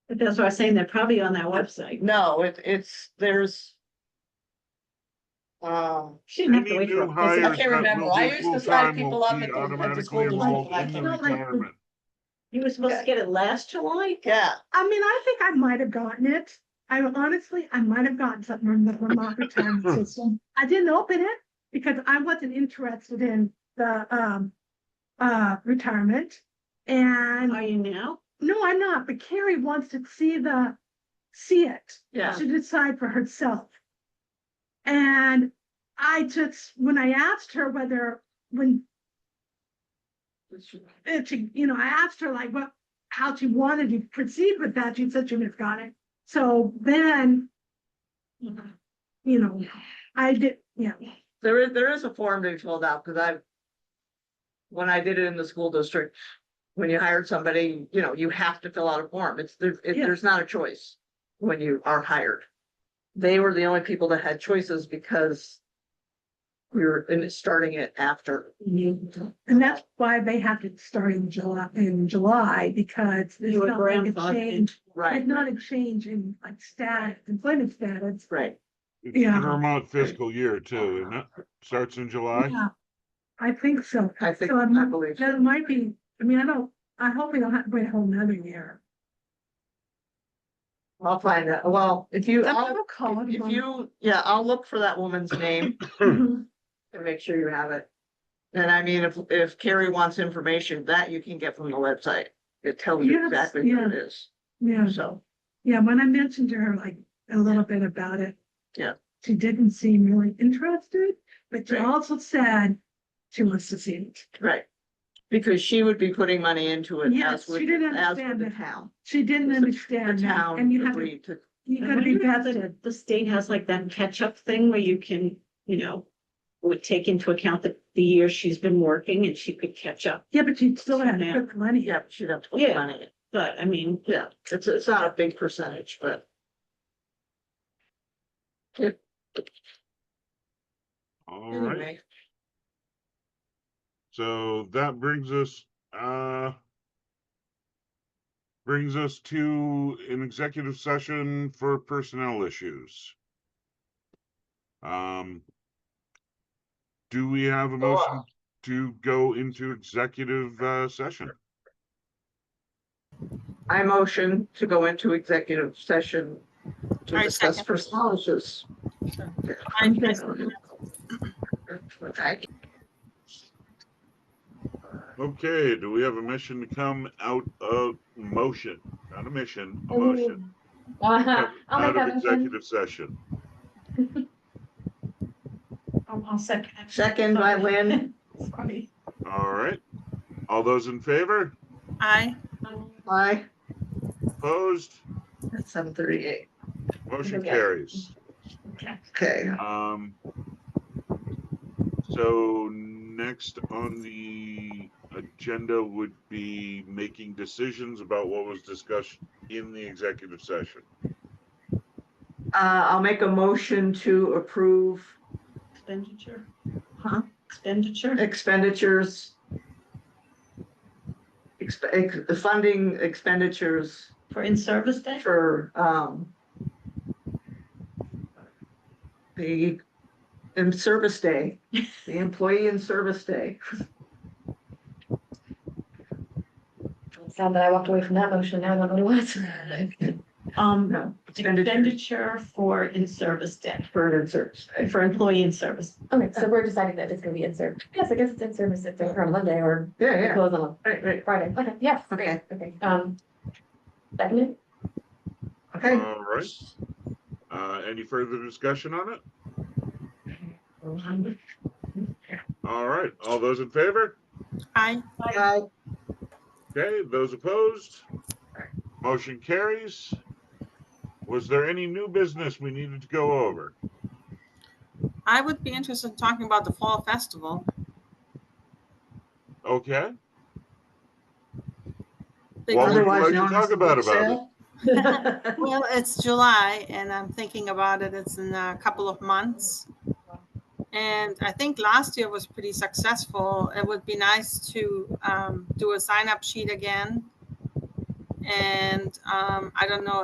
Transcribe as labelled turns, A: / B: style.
A: That's what I was saying, they're probably on that website.
B: No, it, it's, there's. Um,
A: She didn't have to
C: Any
A: wait for.
C: new
A: a
C: hires
A: visit.
B: can't
C: that
B: remember.
C: will
B: I
C: be
B: used to sign
C: full-time
B: people
C: will
B: up
C: be
B: at the- at the
C: automatically
B: school to
C: enrolled
B: like-
C: in the
A: like- like-
C: retirement.
A: You were supposed to get it last July?
B: yeah,
D: I mean, I think I might have gotten it. I honestly, I might have gotten something from the Vermont retirement system. I didn't open it because I wasn't interested in the um uh retirement.
A: Are
D: And
A: you now?
D: no, I'm not, but Carrie wants to see the, see it
A: Yeah.
D: to decide for herself. And I just, when I asked her whether, when if she, you know, I asked her like what, how she wanted to proceed with that, she said she would have got it. So then, you know, I did, yeah,
B: there is, there is a form to be filled out, cause I've. When I did it in the school district, when you hired somebody, you know, you have to fill out a form. It's, there, it-
D: Yeah.
B: there's not a choice when you are hired. They were the only people that had choices because. We were in- starting it after.
D: and that's why they have to start in July, in July, because there's
A: You were
D: not like a
A: grandfathered.
D: change. There's not a change in like status, employment status.
B: Right.
C: It's
D: Yeah.
C: Vermont fiscal year too, and that starts in July.
D: Yeah, I think so.
B: I think,
D: So
B: I
D: I'm-
B: believe.
D: That might be, I mean, I don't, I hope we don't have to wait a whole nother year.
B: I'll find that. Well, if you,
D: That's
B: I'll,
D: what I'll call it,
B: if
D: Mom.
B: you, yeah, I'll look for that woman's name
A: Mm-hmm.
D: Mhm.
B: and make sure you have it. And I mean, if, if Carrie wants information, that you can get from the website. It tells you
D: Yes,
B: exactly what it is,
D: Yeah,
B: so.
D: yeah, when I mentioned to her like a little bit about it.
B: Yeah.
D: She didn't seem really interested, but she
B: Right.
D: also said she wants to see it.
B: Right. Because she would be putting money into it as
D: Yes,
B: would,
D: she didn't
B: as would
D: understand
B: the
D: that.
B: town.
D: She didn't
B: The- The
D: understand that,
B: town
D: and you have, to-
B: agreed to,
D: you
A: I
D: gotta
A: wonder
D: be
A: if the-
D: vested.
A: The state has like that catch-up thing where you can, you know, would take into account the, the year she's been working and she could catch up.
D: Yeah, but you still have to
A: Yeah.
D: put the money
B: yeah,
D: up.
B: but she'd have to put
A: Yeah.
B: money in.
A: But I mean,
B: Yeah, it's, it's not a big percentage, but.
C: All
A: Mm-hmm.
C: right,
B: Anyway,
C: so that brings us, uh. Brings us to an executive session for personnel issues. Um. Do we have a motion to go into executive, uh, session?
B: I motion to go into executive session to
E: I
B: discuss
E: second.
B: personnel issues.
E: I'm present.
B: Okay.
C: Okay, do we have a mission to come out of motion, not a mission,
D: Oh,
C: a motion?
E: Uh-huh.
C: come
E: I'll
C: Out
E: make
C: of
E: that motion.
C: executive session.
A: I'll, I'll second.
B: Second by Lynn.
A: Sorry.
C: All right. All those in favor?
E: Aye.
A: Um,
B: Aye,
C: Opposed?
B: at seven thirty-eight.
C: Motion
B: Okay.
C: carries.
B: Okay, Uh,
C: Um. So next on the agenda would be making decisions about what was discussed in the executive session.
B: uh, I'll make a motion to approve
A: Expenditure,
B: huh,
A: expenditure.
B: expenditures. Exp- ex- funding expenditures
A: For in-service day?
B: for, um, the, in service day, the employee in service day.
E: Sound that I walked away from that motion, now I don't know what it was.
A: Um,
B: No, expenditure
A: expenditure for in-service day,
B: for an in service day.
A: for employee in service.
E: Okay, so we're deciding that it's gonna be in service. Yes, I guess it's in service if they're on Monday or
B: Yeah,
E: they
B: yeah.
E: close on
B: Right, right.
E: Friday. Okay, yes,
B: Okay.
E: great, okay. Um, second,
B: Okay.
C: All right. Uh, any further discussion on it? All right. All those in favor?
E: Aye.
B: Aye.
C: Okay, those opposed? Motion carries. Was there any new business we needed to go over?
F: I would be interested in talking about the fall festival.
C: Okay,
F: Big
C: Well,
F: Earth-
C: we-
B: Otherwise
C: like to
B: known
C: talk
B: as the
C: about
B: book
C: about it.
B: sale.
F: Well, it's July and I'm thinking about it. It's in a couple of months. And I think last year was pretty successful. It would be nice to um, do a sign up sheet again And um, I don't know